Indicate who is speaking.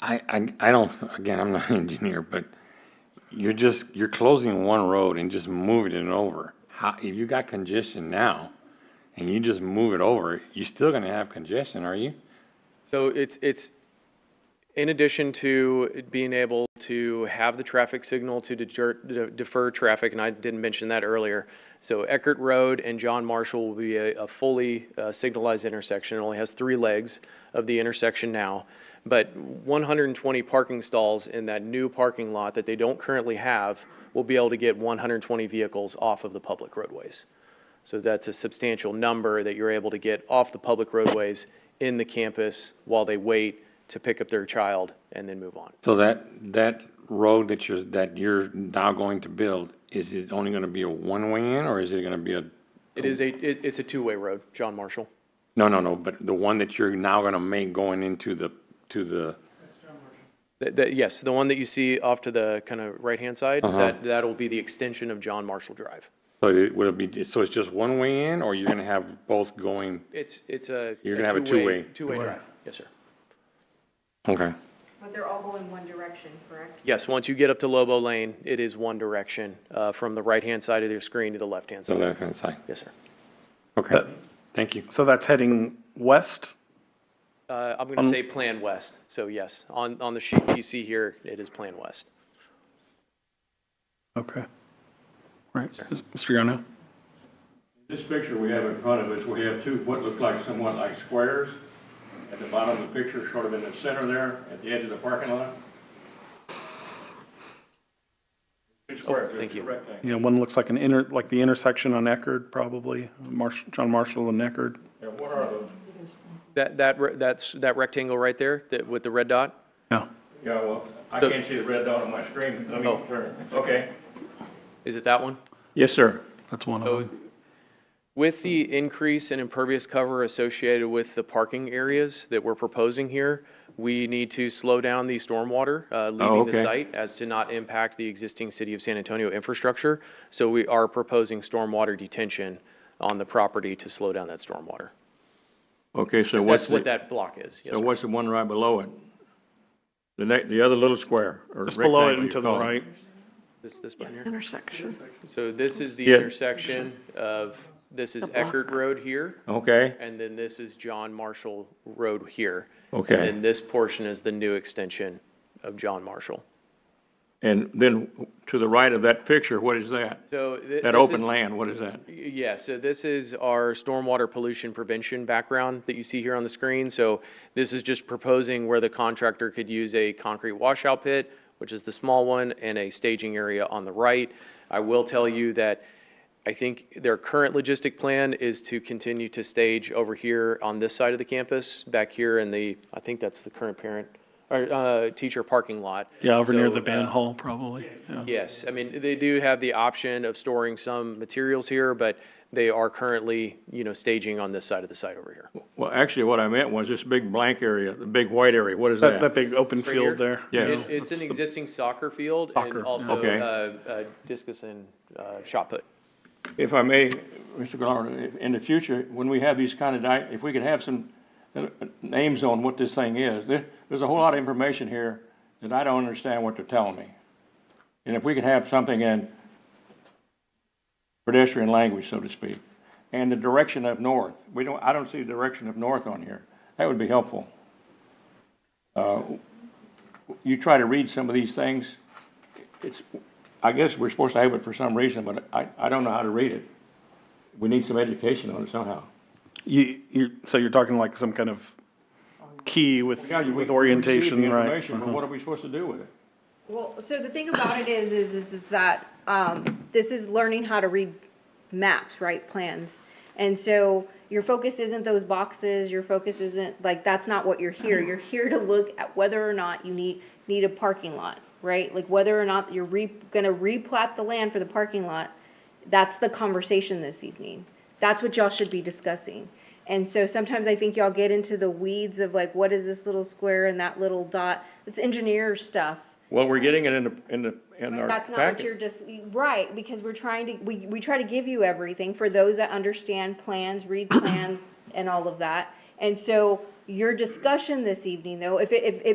Speaker 1: I, I, I don't, again, I'm not an engineer, but you're just, you're closing one road and just moving it over. How, if you got congestion now and you just move it over, you're still gonna have congestion, are you?
Speaker 2: So it's, it's, in addition to it being able to have the traffic signal to deter, de- defer traffic, and I didn't mention that earlier. So Eckert Road and John Marshall will be a, a fully uh, signalized intersection. It only has three legs of the intersection now. But 120 parking stalls in that new parking lot that they don't currently have will be able to get 120 vehicles off of the public roadways. So that's a substantial number that you're able to get off the public roadways in the campus while they wait to pick up their child and then move on.
Speaker 1: So that, that road that you're, that you're now going to build, is it only gonna be a one-way in or is it gonna be a,
Speaker 2: It is a, it, it's a two-way road, John Marshall.
Speaker 1: no, no, no, but the one that you're now gonna make going into the, to the,
Speaker 2: That, that, yes, the one that you see off to the kind of right-hand side,
Speaker 1: Uh-huh.
Speaker 2: that, that'll be the extension of John Marshall Drive.
Speaker 1: so it, would it be, so it's just one way in or you're gonna have both going?
Speaker 2: It's, it's a.
Speaker 1: You're gonna have a two-way.
Speaker 2: Two-way drive, yes, sir.
Speaker 1: Okay.
Speaker 3: But they're all going one direction, correct?
Speaker 2: Yes, once you get up to Lobo Lane, it is one direction, uh, from the right-hand side of your screen to the left-hand
Speaker 1: The
Speaker 2: side.
Speaker 1: left-hand side.
Speaker 2: Yes, sir.
Speaker 1: Okay. Thank you.
Speaker 4: So that's heading west?
Speaker 2: Uh, I'm gonna say Plan West, so yes, on, on the sheet you see here, it is Plan West.
Speaker 4: Okay. Right. Is- Mr. Yarno?
Speaker 5: This picture we have in front of us, we have two, what look like somewhat like squares. At the bottom of the picture, sort of in the center there, at the edge of the parking lot. Two squares,
Speaker 2: thank
Speaker 5: it's a
Speaker 2: you.
Speaker 5: rectangle.
Speaker 4: You know, one looks like an inter, like the intersection on Eckerd, probably, Marsh, John Marshall and Eckerd.
Speaker 5: Yeah, what are those?
Speaker 2: That, that, re- that's, that rectangle right there, that, with the red dot?
Speaker 4: Yeah.
Speaker 5: Yeah, well, I
Speaker 2: So-
Speaker 5: can't see the red dot on my screen, let
Speaker 2: Oh.
Speaker 5: me turn, okay.
Speaker 2: Is it that one?
Speaker 5: Yes, sir.
Speaker 4: That's one of
Speaker 2: So,
Speaker 4: them.
Speaker 2: with the increase in impervious cover associated with the parking areas that we're proposing here, we need to slow down the stormwater, uh, leaving the
Speaker 1: okay.
Speaker 2: site as to not impact the existing city of San Antonio infrastructure. So we are proposing stormwater detention on the property to slow down that stormwater.
Speaker 5: Okay, so
Speaker 2: That's what that block is, yes,
Speaker 5: so
Speaker 2: sir.
Speaker 5: what's the one right below it? The next, the other little square, or
Speaker 4: Just below it and to the right.
Speaker 2: This, this button here.
Speaker 6: intersection.
Speaker 2: So this is the
Speaker 5: Yeah.
Speaker 2: intersection of, this is Eckert Road here,
Speaker 5: Okay,
Speaker 2: and then this is John Marshall Road here.
Speaker 5: Okay.
Speaker 2: And then this portion is the new extension of John Marshall.
Speaker 5: and then to the right of that picture, what is that?
Speaker 2: So. thi-
Speaker 5: That
Speaker 2: this
Speaker 5: open
Speaker 2: is-
Speaker 5: land, what is that?
Speaker 2: Yeah, so this is our stormwater pollution prevention background that you see here on the screen. So this is just proposing where the contractor could use a concrete washout pit, which is the small one, and a staging area on the right. I will tell you that I think their current logistic plan is to continue to stage over here on this side of the campus, back here in the, I think that's the current parent, or, uh, teacher parking lot.
Speaker 4: Yeah, over near
Speaker 2: So,
Speaker 4: the band
Speaker 2: uh,
Speaker 4: hall, probably. Yeah.
Speaker 2: Yes, I mean, they do have the option of storing some materials here, but they are currently, you know, staging on this side of the site over here.
Speaker 5: Well, actually, what I meant was this big blank area, the big white area, what is
Speaker 4: That,
Speaker 5: that?
Speaker 4: that big open
Speaker 2: Right
Speaker 4: field
Speaker 2: here?
Speaker 4: there.
Speaker 5: Yeah.
Speaker 2: It- It's
Speaker 4: That's
Speaker 2: an
Speaker 4: the-
Speaker 2: existing soccer field
Speaker 4: Soccer,
Speaker 2: and also,
Speaker 5: yeah. Okay.
Speaker 2: uh, uh, discus and, uh, shot put.
Speaker 5: If I may, Mr. Gallardo, in the future, when we have these kind of, di- if we could have some uh, names on what this thing is, there, there's a whole lot of information here that I don't understand what they're telling me. And if we could have something in pedestrian language, so to speak, and the direction of north, we don't, I don't see the direction of north on here. That would be helpful. Uh, You try to read some of these things, it's, I guess we're supposed to have it for some reason, but I, I don't know how to read it. We need some education on it somehow.
Speaker 4: You, you're, so you're talking like some kind of key with, with
Speaker 5: We
Speaker 4: orientation,
Speaker 5: receive the
Speaker 4: right?
Speaker 5: information, but what are we supposed to do with it?
Speaker 3: Well, so the thing about it is, is, is- is that, um, this is learning how to read maps, right, plans. And so your focus isn't those boxes, your focus isn't, like, that's not what you're here. You're here to look at whether or not you need, need a parking lot, right? Like whether or not you're re, gonna replat the land for the parking lot. That's the conversation this evening. That's what y'all should be discussing. And so sometimes I think y'all get into the weeds of like, what is this little square and that little dot? It's engineer stuff.
Speaker 5: Well, we're getting it in the, in the, in our
Speaker 3: That's not what you're just, right, because we're trying to, we, we try to give you everything for those that understand plans, read plans, and all of that. And so your discussion this evening, though, if it, if, if